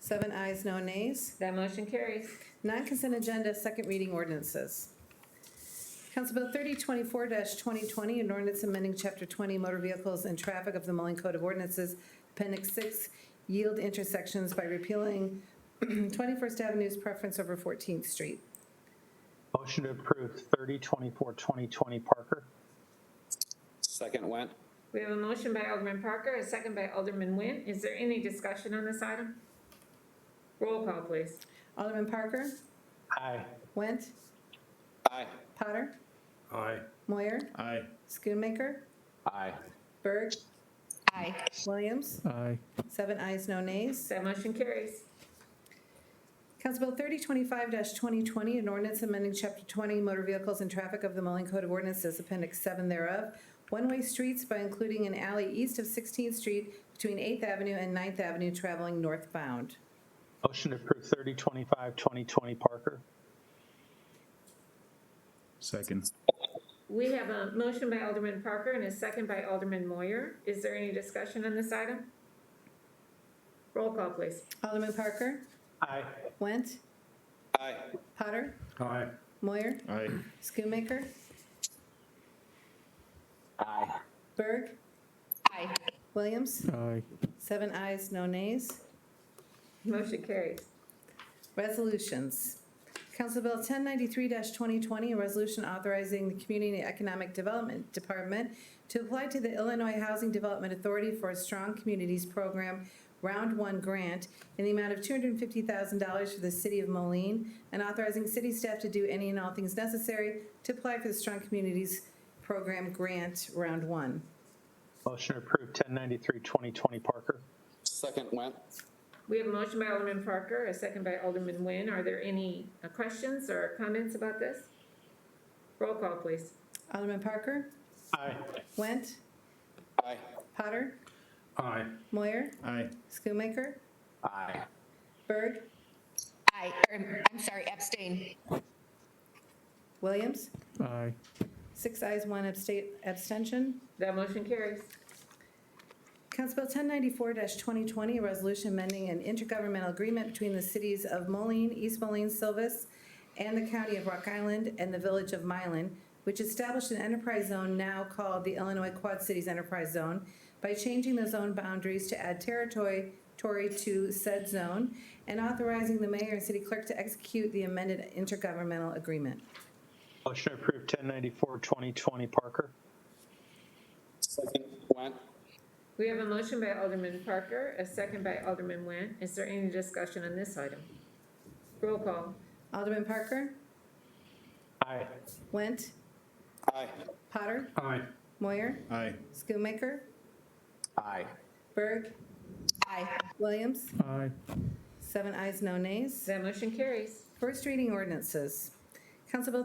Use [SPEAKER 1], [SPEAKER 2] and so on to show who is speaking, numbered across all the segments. [SPEAKER 1] Seven ayes, no nays.
[SPEAKER 2] That motion carries.
[SPEAKER 1] Non-consent agenda, second reading ordinances. Council Bill 3024-2020, an ordinance amending Chapter 20 Motor Vehicles and Traffic of the Moline Code of Ordinances, Appendix 6, Yield Intersections by repealing 21st Avenue's preference over 14th Street.
[SPEAKER 3] Motion to approve 3024 2020 Parker.
[SPEAKER 4] Second went.
[SPEAKER 2] We have a motion by Alderman Parker, a second by Alderman Nguyen. Is there any discussion on this item? Roll call, please.
[SPEAKER 1] Alderman Parker?
[SPEAKER 3] Aye.
[SPEAKER 1] Went?
[SPEAKER 4] Aye.
[SPEAKER 1] Potter?
[SPEAKER 5] Aye.
[SPEAKER 1] Moyer?
[SPEAKER 5] Aye.
[SPEAKER 1] Schoonmaker?
[SPEAKER 4] Aye.
[SPEAKER 1] Berg? Aye. Williams?
[SPEAKER 5] Aye.
[SPEAKER 1] Seven ayes, no nays.
[SPEAKER 2] That motion carries.
[SPEAKER 1] Council Bill 3025-2020, an ordinance amending Chapter 20 Motor Vehicles and Traffic of the Moline Code of Ordinances, Appendix 7 thereof, one-way streets by including an alley east of 16th Street between 8th Avenue and 9th Avenue traveling northbound.
[SPEAKER 3] Motion to approve 3025 2020 Parker.
[SPEAKER 5] Second.
[SPEAKER 2] We have a motion by Alderman Parker and a second by Alderman Moyer. Is there any discussion on this item? Roll call, please.
[SPEAKER 1] Alderman Parker?
[SPEAKER 3] Aye.
[SPEAKER 1] Went?
[SPEAKER 4] Aye.
[SPEAKER 1] Potter?
[SPEAKER 5] Aye.
[SPEAKER 1] Moyer?
[SPEAKER 5] Aye.
[SPEAKER 1] Schoonmaker?
[SPEAKER 4] Aye.
[SPEAKER 1] Berg? Aye. Williams?
[SPEAKER 5] Aye.
[SPEAKER 1] Seven ayes, no nays.
[SPEAKER 2] Motion carries.
[SPEAKER 1] Resolutions. Council Bill 1093-2020, a resolution authorizing the Community and Economic Development Department to apply to the Illinois Housing Development Authority for a Strong Communities Program Round One Grant in the amount of $250,000 for the city of Moline, and authorizing city staff to do any and all things necessary to apply for the Strong Communities Program Grant Round One.
[SPEAKER 3] Motion to approve 1093 2020 Parker.
[SPEAKER 4] Second went.
[SPEAKER 2] We have a motion by Alderman Parker, a second by Alderman Nguyen. Are there any uh, questions or comments about this? Roll call, please.
[SPEAKER 1] Alderman Parker?
[SPEAKER 3] Aye.
[SPEAKER 1] Went?
[SPEAKER 4] Aye.
[SPEAKER 1] Potter?
[SPEAKER 5] Aye.
[SPEAKER 1] Moyer?
[SPEAKER 5] Aye.
[SPEAKER 1] Schoonmaker?
[SPEAKER 4] Aye.
[SPEAKER 1] Berg?
[SPEAKER 6] Aye, or, I'm sorry, abstain.
[SPEAKER 1] Williams?
[SPEAKER 5] Aye.
[SPEAKER 1] Six eyes, one abstain, abstention.
[SPEAKER 2] That motion carries.
[SPEAKER 1] Council Bill ten ninety-four twenty twenty, a resolution amending an intergovernmental agreement between the cities of Moline, East Moline, Silvis, and the county of Rock Island and the village of Mylan, which established an enterprise zone now called the Illinois Quad Cities Enterprise Zone by changing the zone boundaries to add territory, territory to said zone, and authorizing the mayor and city clerk to execute the amended intergovernmental agreement.
[SPEAKER 3] Motion to approve 1094 2020 Parker.
[SPEAKER 4] Second went.
[SPEAKER 2] We have a motion by Alderman Parker, a second by Alderman Nguyen. Is there any discussion on this item? Roll call.
[SPEAKER 1] Alderman Parker?
[SPEAKER 3] Aye.
[SPEAKER 1] Went?
[SPEAKER 4] Aye.
[SPEAKER 1] Potter?
[SPEAKER 5] Aye.
[SPEAKER 1] Moyer?
[SPEAKER 5] Aye.
[SPEAKER 1] Schoonmaker?
[SPEAKER 4] Aye.
[SPEAKER 1] Berg?
[SPEAKER 6] Aye,
[SPEAKER 1] Williams?
[SPEAKER 5] Aye.
[SPEAKER 1] Seven ayes, no nays.
[SPEAKER 2] That motion carries.
[SPEAKER 1] First reading ordinances. Council Bill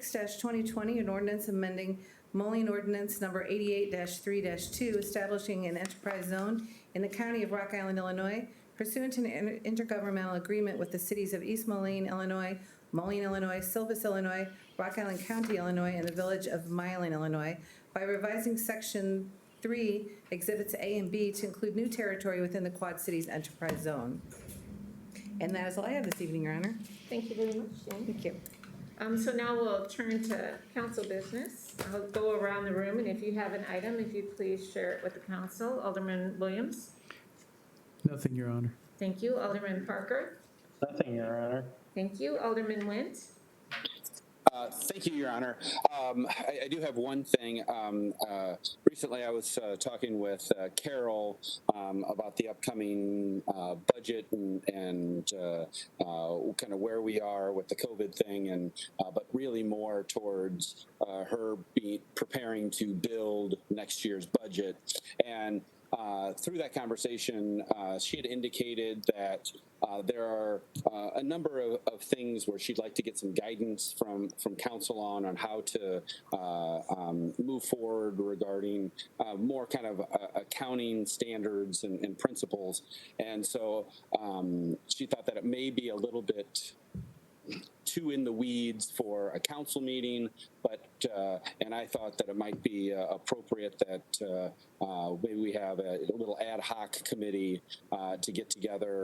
[SPEAKER 1] 3026-2020, an ordinance amending Moline Ordinance Number 88-3-2, establishing an enterprise zone in the county of Rock Island, Illinois pursuant to an inter- intergovernmental agreement with the cities of East Moline, Illinois, Moline, Illinois, Silvis, Illinois, Rock Island County, Illinois, and the village of Mylan, Illinois, by revising Section 3, Exhibits A and B to include new territory within the Quad Cities Enterprise Zone. And that is all I have this evening, Your Honor.
[SPEAKER 2] Thank you very much, Jane.
[SPEAKER 1] Thank you.
[SPEAKER 2] Um, so now we'll turn to council business. I'll go around the room, and if you have an item, if you please share it with the council. Alderman Williams?
[SPEAKER 7] Nothing, Your Honor.
[SPEAKER 2] Thank you. Alderman Parker?
[SPEAKER 3] Nothing, Your Honor.
[SPEAKER 2] Thank you. Alderman Nguyen?
[SPEAKER 4] Uh, Thank you, Your Honor. Um, I I do have one thing. Um, uh, Recently, I was uh, talking with uh, Carol um, about the upcoming uh, budget and- and uh, kind of where we are with the COVID thing, and, uh, but really more towards uh, her be preparing to build next year's budget. And uh, through that conversation, uh, she had indicated that uh, there are uh, a number of, of things where she'd like to get some guidance from from council on on how to uh, um, move forward regarding uh, more kind of uh, accounting standards and, and principles. And so um, she thought that it may be a little bit too in the weeds for a council meeting, but, uh, and I thought that it might be uh, appropriate that, uh, uh, maybe we have a little ad hoc committee, uh, to get together